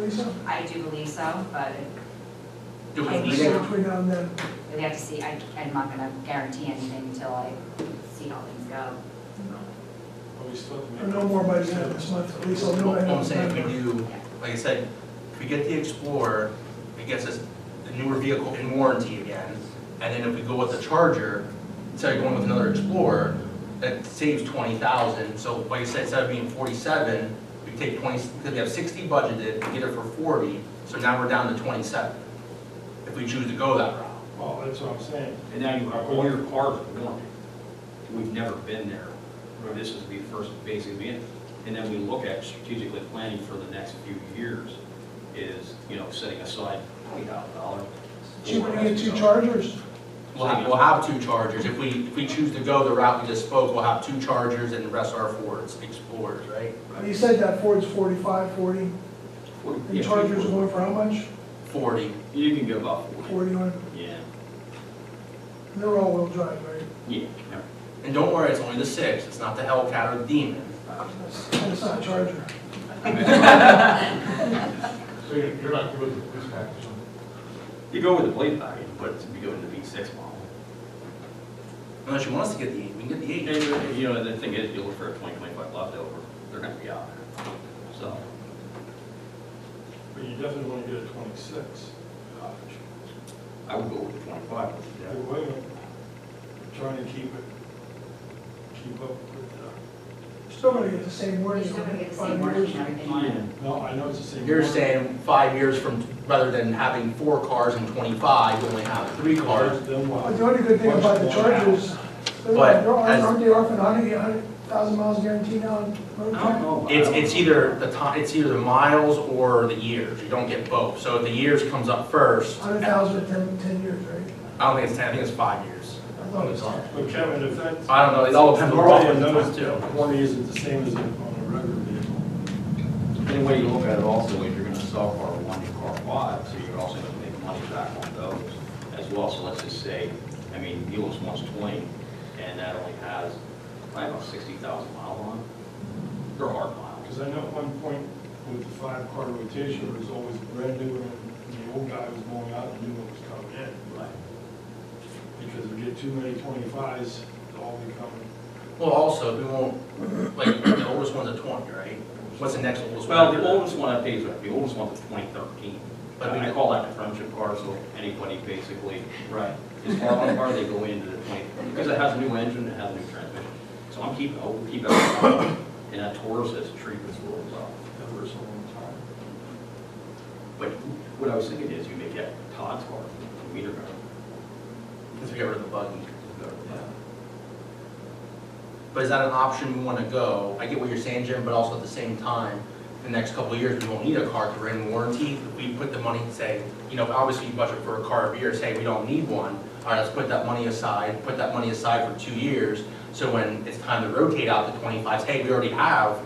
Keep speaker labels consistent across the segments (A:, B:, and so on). A: Lisa?
B: I do believe so, but
C: Do we
B: I
C: need
B: think
C: to?
B: so.
A: Between now and then,
B: we have to see, I, I'm not gonna guarantee anything until I see how things go.
D: Are we still?
A: or no more by the end of this month, at least I'll know.
C: What
A: by
C: I'm
A: the end
C: saying,
A: of
C: if we
A: November.
C: do, like I said, if we get the Explorer, it gets us the newer vehicle in warranty again. And then if we go with the Charger, instead of going with another Explorer, that saves twenty thousand. So like I said, instead of being forty-seven, we take twenty, because we have sixty budgeted, we get it for forty, so now we're down to twenty-seven. If we choose to go that route.
D: Well, that's what I'm saying.
E: And now you have all your cars with warranty. We've never been there. This is the first basic meeting. And then we look at strategically planning for the next few years is, you know, setting aside twenty thousand dollars.
A: Cheaper to get two chargers,
C: We'll have, we'll have two Chargers. If we, if we choose to go the route we just spoke, we'll have two Chargers and the rest are Fords, Explorers, right?
A: you said that Ford's forty-five, forty, and Charger's going for how much?
C: Forty.
E: You can go about forty.
A: Forty on,
E: Yeah,
A: and they're all-wheel drive, right?
E: yeah. no.
C: And don't worry, it's only the six, it's not the Hellcat or the Demon.
A: And it's not a Charger.
D: So you're you're not good with this package on
E: You go with the blade package, but you go with the V six model.
C: Unless you want us to get the eight, we can get the eight.
E: And, uh, you know, the thing is, you look for a twenty, twenty-five leftover, they're gonna be out there. So,
D: it, but you definitely want to get a twenty-six.
E: I would go with the twenty-five.
D: Hey, Wait a minute, trying to keep it, keep up with uh,
A: Still gonna get the same
B: We're
A: warranty.
B: still gonna get the same
A: five
B: warranty
A: years.
B: and everything on it.
D: the, no, I know it's the same.
C: You're saying five years from, rather than having four cars and twenty-five, we only have three cars.
D: Then
A: But
D: what?
A: the only good thing about the
D: Once worn out.
A: Chargers, they're,
C: But
A: they're-
C: as-
A: aren't they offering a hundred, a hundred thousand miles guaranteed on road
E: I don't
A: trip?
E: know.
C: It's, it's either the ti, it's either the miles or the years, you don't get both. So if the years comes up first, I
A: Hundred thousand in ten, ten years, right?
C: don't think it's ten, I think it's five years.
A: I thought it was ten.
D: But Kevin, if that's.
C: I don't know, it all depends on the
D: Normally,
C: performance
D: another
C: too.
D: warranty isn't the same as on a regular vehicle.
E: Any way you look at it also, if you're gonna sell car one, you car five, so you're also gonna make money back on those as well. So let's just say, I mean, Mule's one's twenty, and that only has, probably about sixty thousand miles on it. They're hard miles.
D: Because I know at one point with the five-car rotation, it was always brand new and the old guy was going out and the new one was coming in.
E: Right.
D: Because if you get too many twenty-fives, they all become.
C: Well, also, we won't, like, the oldest one's a twenty, right? What's the next oldest one?
E: Well,
C: after
E: the
C: that?
E: oldest one I paid, the oldest one's twenty thirteen.
C: But we-
E: I call that the friendship car, so anybody basically
C: Right.
E: As far as far they go into the point, because it has a new engine, it has a new transmission. So I'm keeping, I'll keep it, and that Taurus has treated this real well.
D: Ever so long time.
E: But what I was thinking is, you may get Todd's car, the meter car.
C: If we get rid of the buggy. But is that an option we want to go? I get what you're saying, Jim, but also at the same time, the next couple of years, we won't need a car because we're in warranty. If we put the money, say, you know, obviously you budget for a car every year, say, we don't need one. All right, let's put that money aside, put that money aside for two years. So when it's time to rotate out the twenty-fives, hey, we already have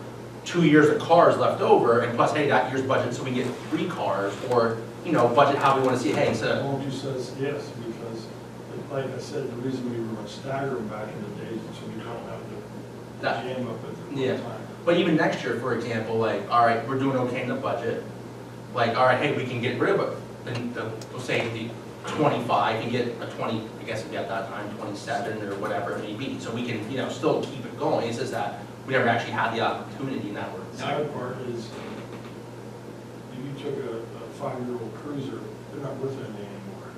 C: two years of cars left over and plus, hey, that year's budget, so we get three cars or, you know, budget how we want to see, hey, instead of,
D: Won't you says yes, because like I said, the reason we were staggering back in the days is so we don't have the
C: That-
D: jam up at the
C: Yeah.
D: one time.
C: But even next year, for example, like, all right, we're doing okay in the budget. Like, all right, hey, we can get rid of it, then the, we'll say the twenty-five, and get a twenty, I guess we got that time, twenty-seven or whatever it may be. So we can, you know, still keep it going. It's just that we never actually had the opportunity in that we're.
D: The Sad part is, if you took a, a five-year-old cruiser, they're not worth anything anymore.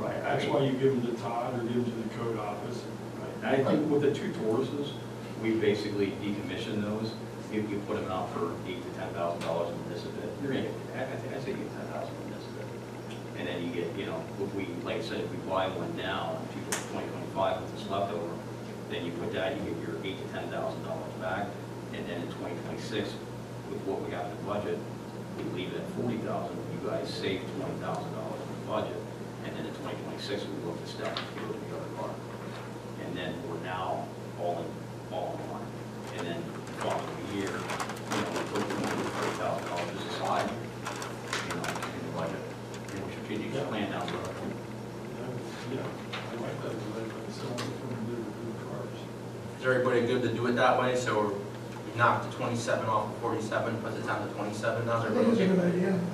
E: Right,
D: That's why you give them to Todd or give them to the code office.
E: I think with the two Tauruses, we basically decommissioned those. If you put them out for eight to ten thousand dollars in this event, you're gonna, get- I I think I say get ten thousand in this event. And then you get, you know, if we, like I said, if we buy one now, in two thousand twenty twenty-five with this leftover, then you put that, you get your eight to ten thousand dollars back. And then in twenty twenty-six, with what we have in the budget, we leave it at forty thousand, you guys save twenty thousand dollars in the budget. And then in twenty twenty-six, we look to step through the other part and then we're now all in, all in one. And then following year, you know, we're putting thirty thousand dollars aside, you know, in the budget, you know, strategic plan down the road.
D: Yeah, I like that, I like that, someone from the new cars.
C: Is everybody good to do it that way? So we knocked the twenty-seven off of forty-seven, put it down to twenty-seven, now
A: I
C: they're
A: think it's a
C: okay.
A: good idea.